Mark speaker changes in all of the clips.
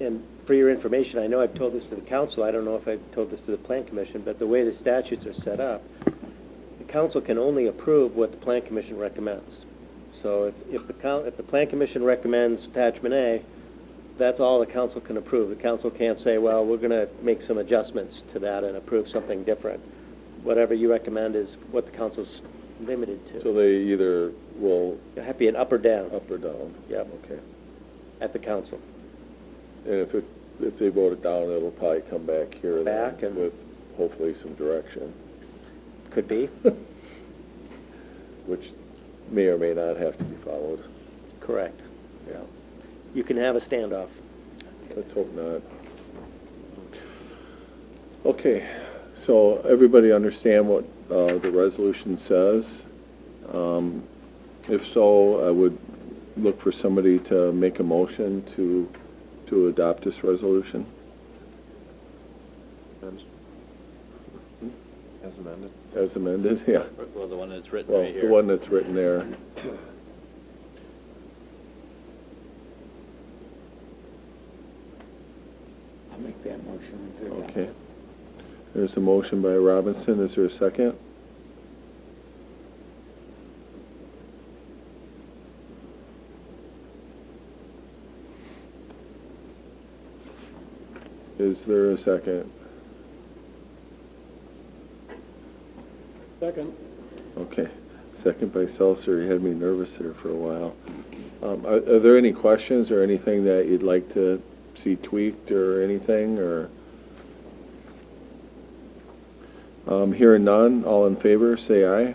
Speaker 1: and for your information, I know I've told this to the council, I don't know if I've told this to the plan commission, but the way the statutes are set up, the council can only approve what the plan commission recommends. So if, if the coun, if the plan commission recommends attachment A, that's all the council can approve. The council can't say, well, we're gonna make some adjustments to that and approve something different. Whatever you recommend is what the council's limited
Speaker 2: So
Speaker 1: to.
Speaker 2: they either will
Speaker 1: It'll have to be an up or down
Speaker 2: up or down?
Speaker 1: Yep.
Speaker 2: Okay.
Speaker 1: at the council.
Speaker 2: And if it, if they vote it down, it'll probably come back here then
Speaker 1: Back and-
Speaker 2: with hopefully some direction,
Speaker 1: Could be,
Speaker 2: which may or may not have to be followed.
Speaker 1: correct.
Speaker 2: Yeah.
Speaker 1: You can have a standoff.
Speaker 2: Let's hope not. Okay, so everybody understand what uh, the resolution says? Um, If so, I would look for somebody to make a motion to, to adopt this resolution.
Speaker 3: As amended.
Speaker 2: As amended, yeah.
Speaker 3: Well, the one that's written
Speaker 2: Well,
Speaker 3: right
Speaker 2: the
Speaker 3: here.
Speaker 2: one that's written there.
Speaker 4: I'll make that motion. to adopt.
Speaker 2: Okay. There's a motion by Robinson. Is there a second? Is there a second?
Speaker 5: Second.
Speaker 2: Okay. Second by Seltzer. You had me nervous there for a while. Um, Are are there any questions or anything that you'd like to see tweaked or anything, or? Um, Hearing none, all in favor, say aye.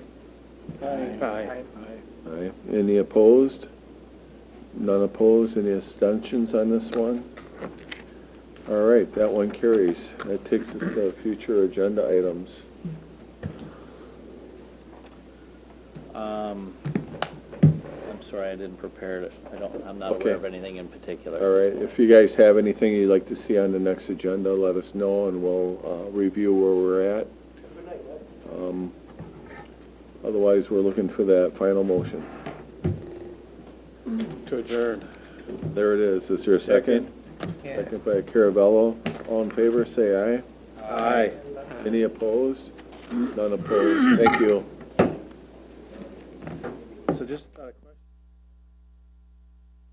Speaker 1: Aye.
Speaker 2: Aye. Any opposed? None opposed, any abstentions on this one? All right, that one carries. That takes us to future agenda items.
Speaker 3: Um, I'm sorry, I didn't prepare it. I don't, I'm not
Speaker 2: Okay.
Speaker 3: aware of anything in particular.
Speaker 2: All right, if you guys have anything you'd like to see on the next agenda, let us know, and we'll uh, review where we're at. Um, Otherwise, we're looking for that final motion.
Speaker 5: To adjourn.
Speaker 2: There it is. Is there a second? Second by Caravello. All in favor, say aye. Aye. Any opposed? None opposed. Thank you.
Speaker 5: So just, uh,